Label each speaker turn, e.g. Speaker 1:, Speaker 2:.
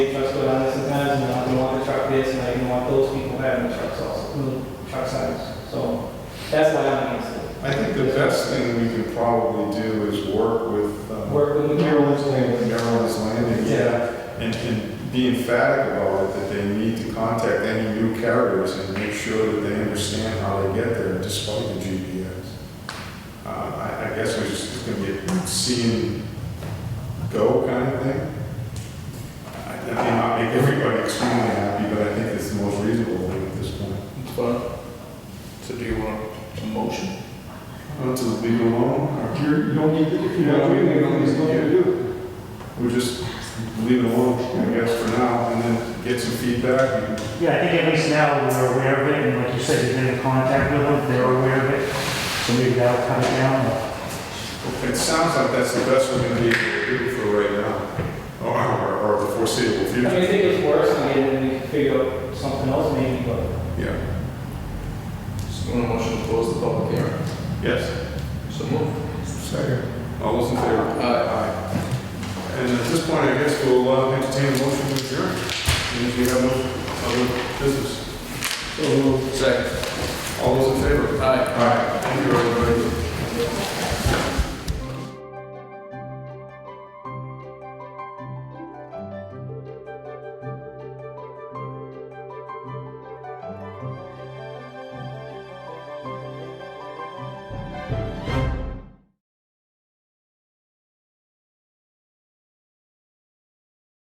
Speaker 1: want those people having trucks also, mm, truck signs. So that's why I'm against it.
Speaker 2: I think the best thing we could probably do is work with um,
Speaker 1: Work with the
Speaker 2: Maryland's Landing, Maryland's Landing,
Speaker 1: Yeah.
Speaker 2: and, and be emphatic about it, that they need to contact any new carriers and make sure that they understand how they get there despite the GPS. Uh, I, I guess we're just gonna get see and go kind of thing. I I may not make everybody extremely happy, but I think it's the most reasonable thing at this point.
Speaker 3: It's fine. So do you want a motion?
Speaker 2: Well, to leave it alone, or-
Speaker 4: You're, you don't need, to- if you're
Speaker 2: Yeah,
Speaker 4: not
Speaker 2: we-
Speaker 4: doing it,
Speaker 2: we don't
Speaker 4: there's
Speaker 2: need
Speaker 4: nothing
Speaker 2: to
Speaker 4: to do.
Speaker 2: We just leave it alone, I guess, for now, and then get some feedback. and-
Speaker 5: Yeah, I think at least now we're aware of it, and like you said, you've been in contact with them, they're aware of it, so maybe that'll cut it down.
Speaker 2: It sounds like that's the best we're gonna be able to do for right now, or, or- or the
Speaker 1: I
Speaker 2: foreseeable
Speaker 1: mean,
Speaker 2: future.
Speaker 1: if it gets worse, I mean, then we can figure out something else maybe, but
Speaker 2: Yeah,
Speaker 3: So you want a motion to close the public hearing?
Speaker 2: yes.
Speaker 3: So move.
Speaker 2: Second. All those in favor?
Speaker 3: Aye.
Speaker 2: And at this point, I guess we'll uh, entertain a motion to adjourn, and if we have no other business.
Speaker 3: Second.
Speaker 2: All those in favor?
Speaker 3: Aye.
Speaker 2: Aye.